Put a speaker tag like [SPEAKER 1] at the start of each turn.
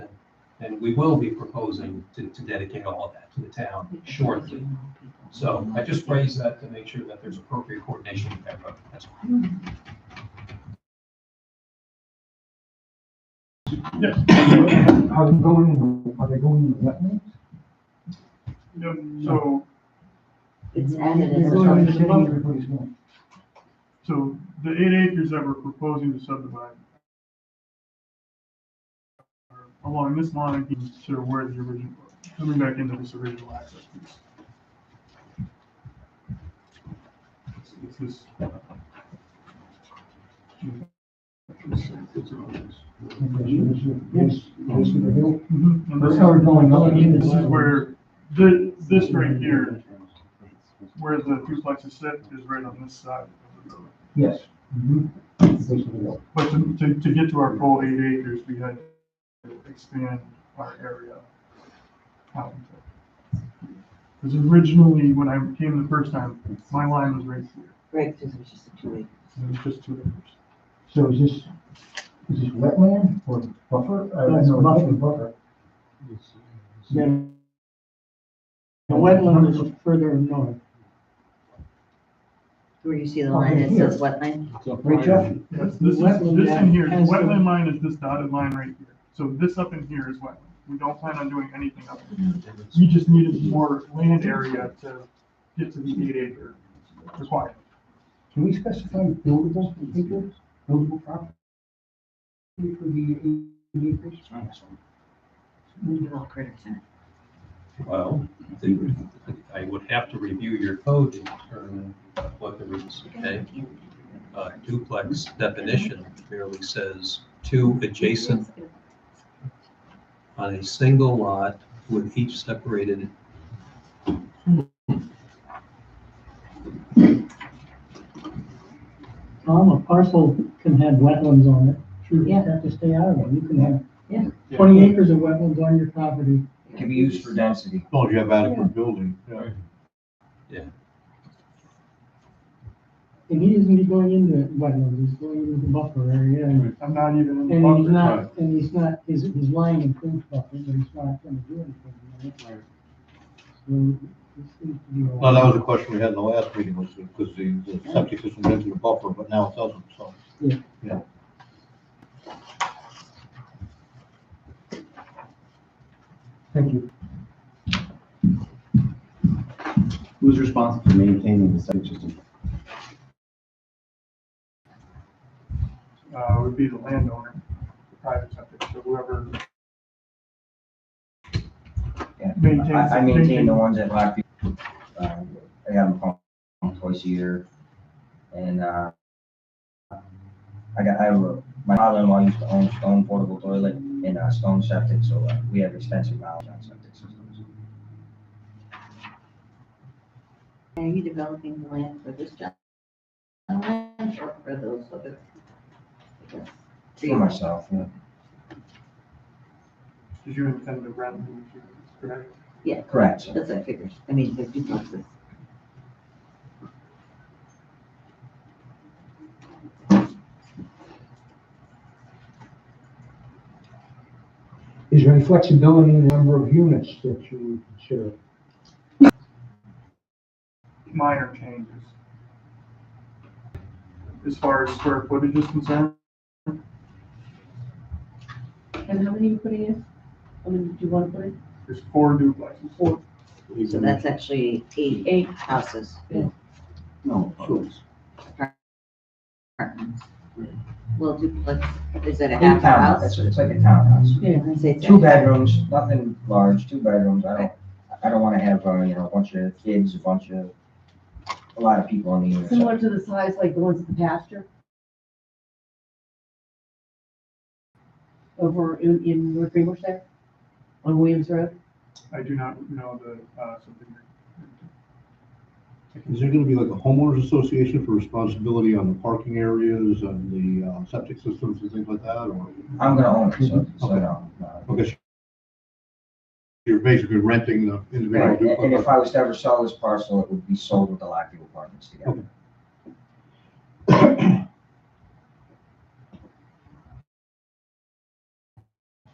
[SPEAKER 1] And we will be proposing to, to dedicate all of that to the town shortly. So I just raised that to make sure that there's appropriate coordination with everybody. That's all.
[SPEAKER 2] Are they going, are they going in the wetlands?
[SPEAKER 3] Yep, so,
[SPEAKER 4] It's added as
[SPEAKER 2] They're
[SPEAKER 4] a
[SPEAKER 2] going in the
[SPEAKER 4] public
[SPEAKER 2] city,
[SPEAKER 4] road.
[SPEAKER 2] everybody's going.
[SPEAKER 3] so the eight acres that we're proposing to subdivide are along this line, sort of where the original, coming back into this original access piece. It's- It's this. uh,
[SPEAKER 2] Okay, so this is- This, this is the hill.
[SPEAKER 3] Mm-hmm. And
[SPEAKER 2] They
[SPEAKER 3] this-
[SPEAKER 2] started going up.
[SPEAKER 3] This is where, the, this right here, where the duplexes sit, is right on this side of the road.
[SPEAKER 2] Yes. Mhm. This is the hill.
[SPEAKER 3] But to, to, to get to our full eight acres, we had to expand our area. out into- Because originally, when I came the first time, my line was right here,
[SPEAKER 4] Right, because it's just a two-way.
[SPEAKER 3] and it was just two acres.
[SPEAKER 2] So is this, is this wetland or buffer? I don't
[SPEAKER 5] That's
[SPEAKER 2] know,
[SPEAKER 5] buffer.
[SPEAKER 2] it's Buffer.
[SPEAKER 5] Then The wetland is further north.
[SPEAKER 4] Where you see the
[SPEAKER 2] Over
[SPEAKER 4] line that
[SPEAKER 2] here.
[SPEAKER 4] says wetland?
[SPEAKER 2] Right, Jeff?
[SPEAKER 3] Yes, this is,
[SPEAKER 5] Wetland
[SPEAKER 3] this in here, the
[SPEAKER 5] has the-
[SPEAKER 3] wetland line is this dotted line right here. So this up in here is wetland. We don't plan on doing anything up in here. We just needed more land area to get to the eight acre requirement.
[SPEAKER 2] Can we specify buildable acres, buildable property? For the eight acres?
[SPEAKER 4] With all critters in it.
[SPEAKER 1] Well, the- I would have to review your code to determine what the rules, okay? Uh, Duplex definition merely says two adjacent on a single lot with each separated.
[SPEAKER 5] Tom, a parcel can have wetlands on it. Sure, you
[SPEAKER 4] Yeah.
[SPEAKER 5] have to stay out of it. You can
[SPEAKER 4] Yeah.
[SPEAKER 5] have twenty acres of wetlands on your property.
[SPEAKER 6] can be used for density.
[SPEAKER 7] As long as Oh, you have adequate building, yeah.
[SPEAKER 5] And he isn't going into wetlands, he's going into the buffer area. And
[SPEAKER 3] I'm not even in the
[SPEAKER 5] and he's
[SPEAKER 3] buffer.
[SPEAKER 5] not, and he's not, his, his line includes buffer, but he's not gonna do anything. with it. So, this seems to be. a-
[SPEAKER 7] Well, that was the question we had in the last meeting, was because the, the septic system went into the buffer, but now it doesn't, so.
[SPEAKER 2] Thank you.
[SPEAKER 6] Who's responsible for maintaining the septic system?
[SPEAKER 3] uh, would be the landowner, the private septic, so whoever.
[SPEAKER 6] Yeah.
[SPEAKER 3] Maintains-
[SPEAKER 6] I, I maintain the ones at Blackview. Um, I have them pumped twice a year. And, uh, I got, I, have a- my father-in-law used to own stone portable toilet and a stone septic, so uh, we have extensive knowledge on septic systems.
[SPEAKER 4] Are you developing the land for this job? Land or for those other? I guess,
[SPEAKER 6] For myself, yeah.
[SPEAKER 3] Did you intend to rent? the units, correct?
[SPEAKER 4] Yeah,
[SPEAKER 6] Correct.
[SPEAKER 4] that's what I figured. I mean, the duplexes.
[SPEAKER 2] Is there any flexibility in the number of units that you would consider?
[SPEAKER 3] Minor changes. As far as square footage is concerned,
[SPEAKER 8] And how many you putting in? How many do you want to put in?
[SPEAKER 3] there's four duplexes.
[SPEAKER 8] Four.
[SPEAKER 4] So that's actually eight, eight houses,
[SPEAKER 7] No, sure.
[SPEAKER 4] apartments. Well, duplex, is that a
[SPEAKER 6] In
[SPEAKER 4] half
[SPEAKER 6] town,
[SPEAKER 4] house?
[SPEAKER 6] that's, it's like a townhouse.
[SPEAKER 4] Yeah, I'd say it's a-
[SPEAKER 6] Two bedrooms, nothing large, two bedrooms, I don't, I don't wanna have, uh, you know, a bunch of kids, a bunch of, a lot of people on the unit.
[SPEAKER 8] Similar to the size like the ones at the pasture? Over in, in North Greenbush there? On Williams Road?
[SPEAKER 3] I do not know the, uh, something.
[SPEAKER 7] Is there gonna be like a homeowners association for responsibility on the parking areas and the uh, septic systems and things like that, or?
[SPEAKER 6] I'm gonna own it, so, so
[SPEAKER 7] Okay.
[SPEAKER 6] no, no.
[SPEAKER 7] Because you're basically renting the
[SPEAKER 6] Right,
[SPEAKER 7] individual
[SPEAKER 6] and- And if
[SPEAKER 7] duplex.
[SPEAKER 6] I was to ever sell this parcel, it would be sold with the Lockview Apartments together.